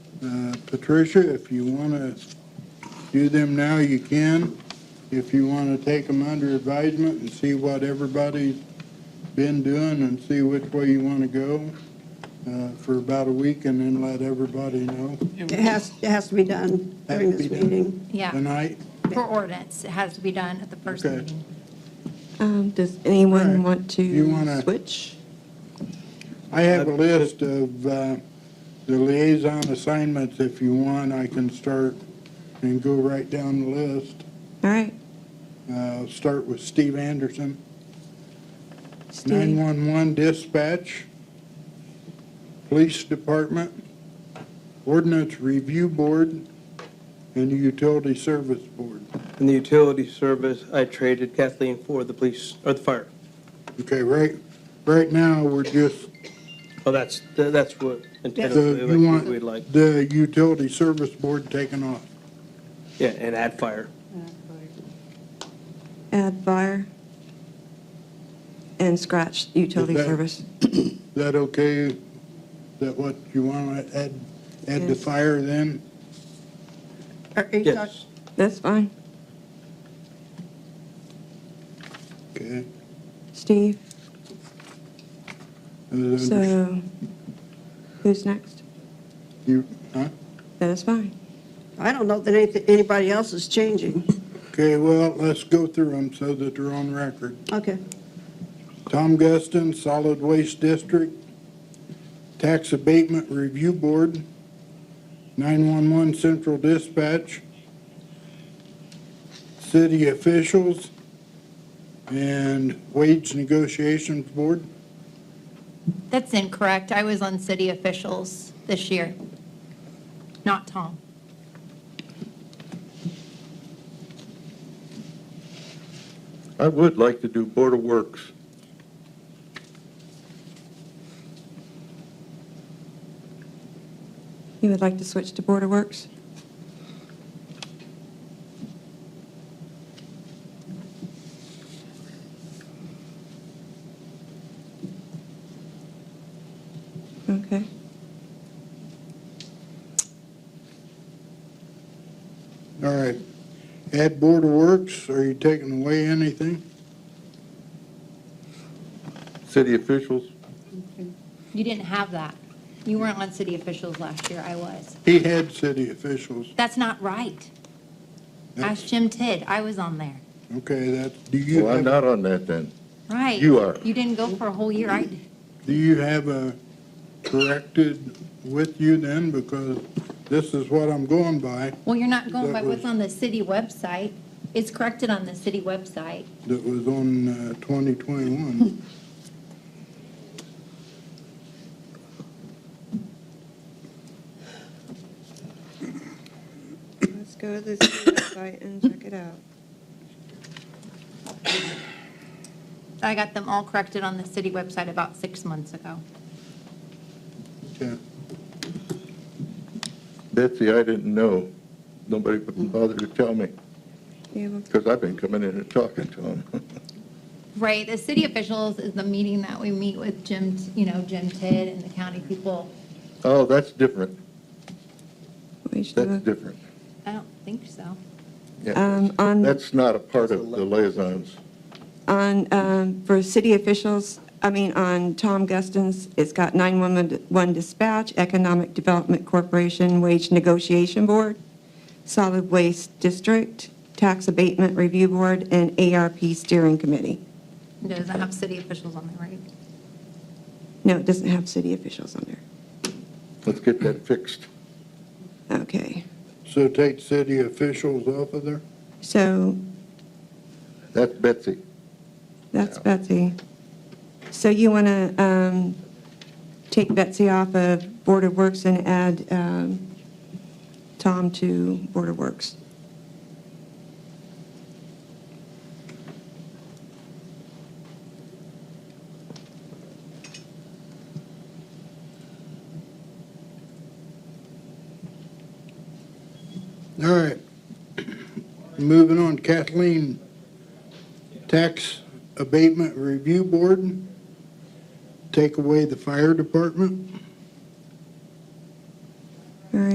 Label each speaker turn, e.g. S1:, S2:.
S1: Uh, Patricia, if you want to do them now, you can. If you want to take them under advisement and see what everybody's been doing and see which way you want to go uh, for about a week and then let everybody know
S2: It has, it has to be done during this meeting.
S3: Yeah,
S1: tonight.
S3: for ordinance, it has to be done at the first
S1: Okay.
S3: meeting.
S4: Um, Does
S1: All right.
S4: anyone want
S1: You
S4: to
S1: wanna-
S4: switch?
S1: I have a list of uh, the liaison assignments. If you want, I can start and go right down the list.
S4: All right.
S1: Uh, Start with Steve Anderson.
S4: Steve.
S1: 911 dispatch, police department, ordinance review board, and utility service board.
S5: In the utility service, I traded Kathleen for the police, or the fire.
S1: Okay, right, right now, we're just,
S5: Oh, that's, that's what
S1: the-
S5: intentionally
S1: you
S5: like we'd like.
S1: want the utility service board taken off.
S5: Yeah, and add fire.
S4: Add fire. And scratch utility
S1: Okay.
S4: service.
S1: Is that okay? Is that what you want to add, add the
S4: Yes.
S1: fire then?
S2: Are you talk-
S5: Yes.
S4: That's fine.
S1: Okay.
S4: Steve,
S1: Is it under-
S4: so who's next?
S1: you- huh?
S4: That is fine.
S2: I don't know that anything, anybody else is changing.
S1: Okay, well, let's go through them so that they're on record.
S2: Okay.
S1: Tom Guston, Solid Waste District, Tax Abatement Review Board, 911 Central Dispatch, City Officials, and Wage Negotiations Board.
S3: That's incorrect. I was on city officials this year, not Tom.
S6: I would like to do Board of Works.
S4: You would like to switch to Board of Works? Okay.
S1: All right. Add Board of Works, are you taking away anything?
S6: City officials,
S3: You didn't have that. You weren't on city officials last year. I was.
S1: He had city officials.
S3: That's not right. Ask Jim Tidd. I was on there.
S1: Okay, that, do you
S6: well, I'm
S1: have,
S6: not on that then.
S3: Right.
S6: You are.
S3: You didn't go for a whole year. I,
S1: do you have a corrected with you then? Because this is what I'm going by.
S3: well, you're not going by
S1: That
S3: what's
S1: was-
S3: on the city website. It's corrected on the city website.
S1: that was on uh, 2021.
S4: Let's go to the website and check it out.
S3: I got them all corrected on the city website about six months ago.
S1: Okay.
S6: Betsy, I didn't know. Nobody would bother to tell me,
S4: You
S6: because I've been coming in and talking to them.
S3: Right, the city officials is the meeting that we meet with Jim, you know, Jim Tidd and the county people.
S6: Oh, that's different.
S4: will each do a-
S6: That's different.
S3: I don't think so.
S6: Yeah.
S4: Uh, Um, On,
S6: That's not a part of the liaisons.
S4: on, um, for city officials, I mean, on Tom Guston's, it's got 911 Dispatch, Economic Development Corporation, Wage Negotiation Board, Solid Waste District, Tax Abatement Review Board, and ARP Steering Committee.
S3: It doesn't have city officials on there, right?
S4: No, it doesn't have city officials on there.
S6: Let's get that fixed.
S4: Okay,
S1: So take city officials off of there?
S4: so
S6: That's Betsy.
S4: That's
S6: Yeah.
S4: Betsy. So you want to um, take Betsy off of Board of Works and add um, Tom to Board of Works?
S1: All right. Moving on, Kathleen, Tax Abatement Review Board, take away the fire department.